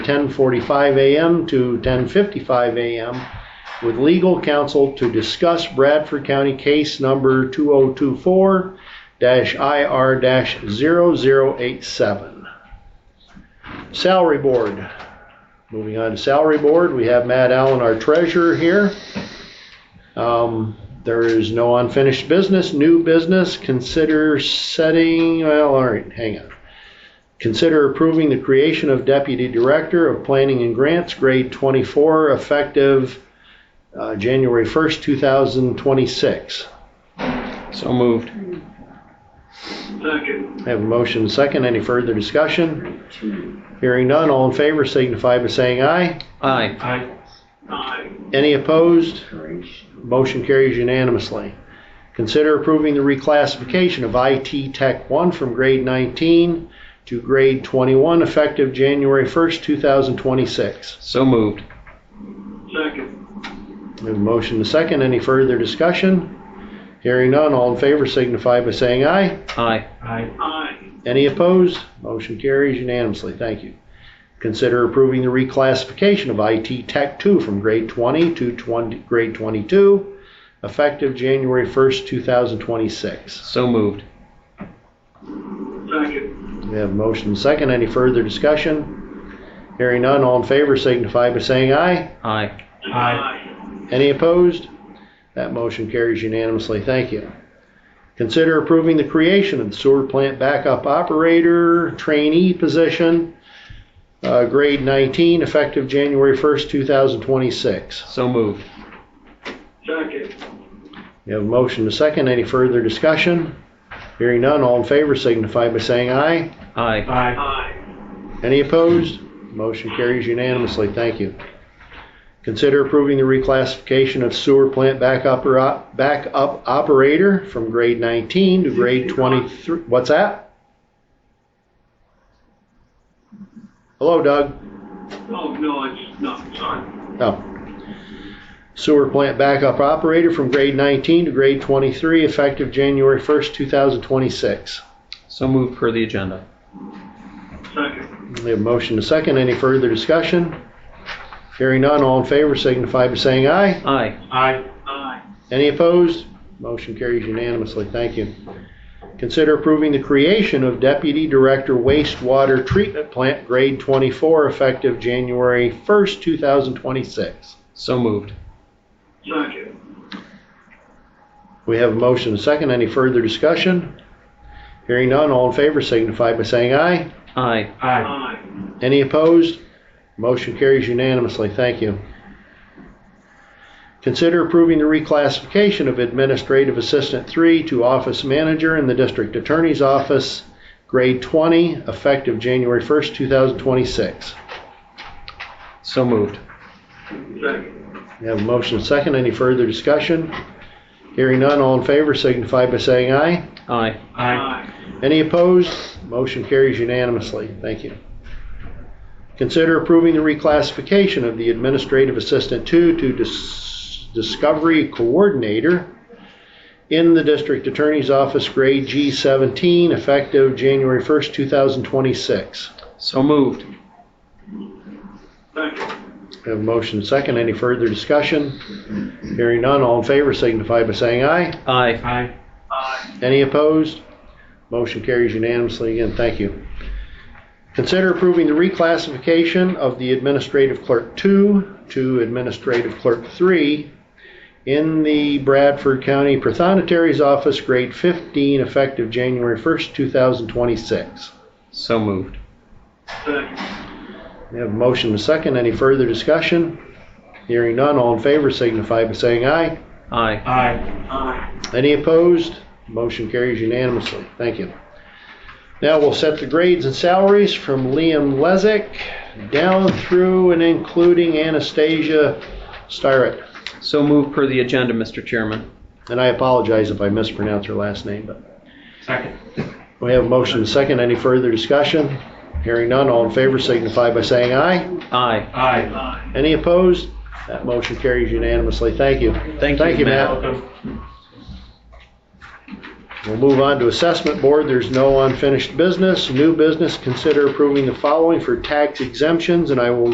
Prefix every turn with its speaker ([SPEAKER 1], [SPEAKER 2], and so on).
[SPEAKER 1] 10:45 a.m. to 10:55 a.m. with legal counsel to discuss Bradford County Case Number 2024-IR-0087. Salary Board. Moving on to Salary Board, we have Matt Allen, our treasurer here. Um, There is no unfinished business, new business, consider setting, well, all right, hang on. Consider approving the creation of Deputy Director of Planning and Grants, grade 24, effective uh, January 1st, 2026.
[SPEAKER 2] So moved.
[SPEAKER 1] I Have a motion and a second. Any further discussion? Hearing none, all in favor signify by saying aye.
[SPEAKER 2] Aye.
[SPEAKER 1] Any opposed? Motion carries unanimously. Consider approving the reclassification of IT Tech 1 from grade 19 to grade 21, effective January 1st, 2026.
[SPEAKER 2] So moved.
[SPEAKER 3] Second.
[SPEAKER 1] We have a motion to second. Any further discussion? Hearing none, all in favor signify by saying aye.
[SPEAKER 2] Aye.
[SPEAKER 3] Aye.
[SPEAKER 1] Any opposed? Motion carries unanimously. Thank you. Consider approving the reclassification of IT Tech 2 from grade 20 to 20, grade 22, effective January 1st, 2026.
[SPEAKER 2] So moved.
[SPEAKER 3] Second.
[SPEAKER 1] We have a motion and second. Any further discussion? Hearing none, all in favor signify by saying aye.
[SPEAKER 2] Aye.
[SPEAKER 3] Aye.
[SPEAKER 1] Any opposed? That motion carries unanimously. Thank you. Consider approving the creation of the sewer plant backup operator trainee position, uh, grade 19, effective January 1st, 2026.
[SPEAKER 2] So moved.
[SPEAKER 3] Second.
[SPEAKER 1] You have a motion to second. Any further discussion? Hearing none, all in favor signify by saying aye.
[SPEAKER 2] Aye.
[SPEAKER 3] Aye.
[SPEAKER 1] Any opposed? Motion carries unanimously. Thank you. Consider approving the reclassification of sewer plant backup, or- backup operator from grade 19 to grade 23. What's that? Hello, Doug.
[SPEAKER 3] Oh, no, it's not, sorry.
[SPEAKER 1] Oh. Sewer plant backup operator from grade 19 to grade 23, effective January 1st, 2026.
[SPEAKER 2] So moved per the agenda.
[SPEAKER 3] Second.
[SPEAKER 1] We have a motion to second. Any further discussion? Hearing none, all in favor signify by saying aye.
[SPEAKER 2] Aye.
[SPEAKER 3] Aye. Aye.
[SPEAKER 1] Any opposed? Motion carries unanimously. Thank you. Consider approving the creation of Deputy Director Wastewater Treatment Plant Grade 24 effective January 1st, 2026.
[SPEAKER 2] So moved.
[SPEAKER 3] Second.
[SPEAKER 1] We have a motion and a second. Any further discussion? Hearing none, all in favor signify by saying aye.
[SPEAKER 2] Aye.
[SPEAKER 3] Aye.
[SPEAKER 1] Any opposed? Motion carries unanimously. Thank you. Consider approving the reclassification of Administrative Assistant 3 to Office Manager in the District Attorney's Office, Grade 20, effective January 1st, 2026.
[SPEAKER 2] So moved.
[SPEAKER 3] Second.
[SPEAKER 1] We have a motion and second. Any further discussion? Hearing none, all in favor signify by saying aye.
[SPEAKER 2] Aye.
[SPEAKER 3] Aye.
[SPEAKER 1] Any opposed? Motion carries unanimously. Thank you. Consider approving the reclassification of the Administrative Assistant 2 to Dis- Discovery Coordinator in the District Attorney's Office, grade G17, effective January 1st, 2026.
[SPEAKER 2] So moved.
[SPEAKER 3] Second.
[SPEAKER 1] We Have a motion and second. Any further discussion? Hearing none, all in favor signify by saying aye.
[SPEAKER 2] Aye.
[SPEAKER 3] Aye. Aye.
[SPEAKER 1] Any opposed? Motion carries unanimously. Again, thank you. Consider approving the reclassification of the Administrative Clerk 2 to Administrative Clerk 3 in the Bradford County Prothonotary's Office, grade 15, effective January 1st, 2026.
[SPEAKER 2] So moved.
[SPEAKER 3] Second.
[SPEAKER 1] We have a motion and a second. Any further discussion? Hearing none, all in favor signify by saying aye.
[SPEAKER 2] Aye.
[SPEAKER 3] Aye. Aye.
[SPEAKER 1] Any opposed? Motion carries unanimously. Thank you. Now we'll set the grades and salaries from Liam Lezick down through and including Anastasia Styrett.
[SPEAKER 2] So moved per the agenda, Mr. Chairman.
[SPEAKER 1] And I apologize if I mispronounce her last name, but
[SPEAKER 3] Second.
[SPEAKER 1] we have a motion and a second. Any further discussion? Hearing none, all in favor signify by saying aye.
[SPEAKER 2] Aye.
[SPEAKER 3] Aye. Aye.
[SPEAKER 1] Any opposed? That motion carries unanimously. Thank you.
[SPEAKER 2] Thank you,
[SPEAKER 1] Thank you,
[SPEAKER 2] Matt.
[SPEAKER 1] Matt.
[SPEAKER 3] Welcome.
[SPEAKER 1] We'll move on to assessment board. There's no unfinished business. New business, consider approving the following for tax exemptions, and I will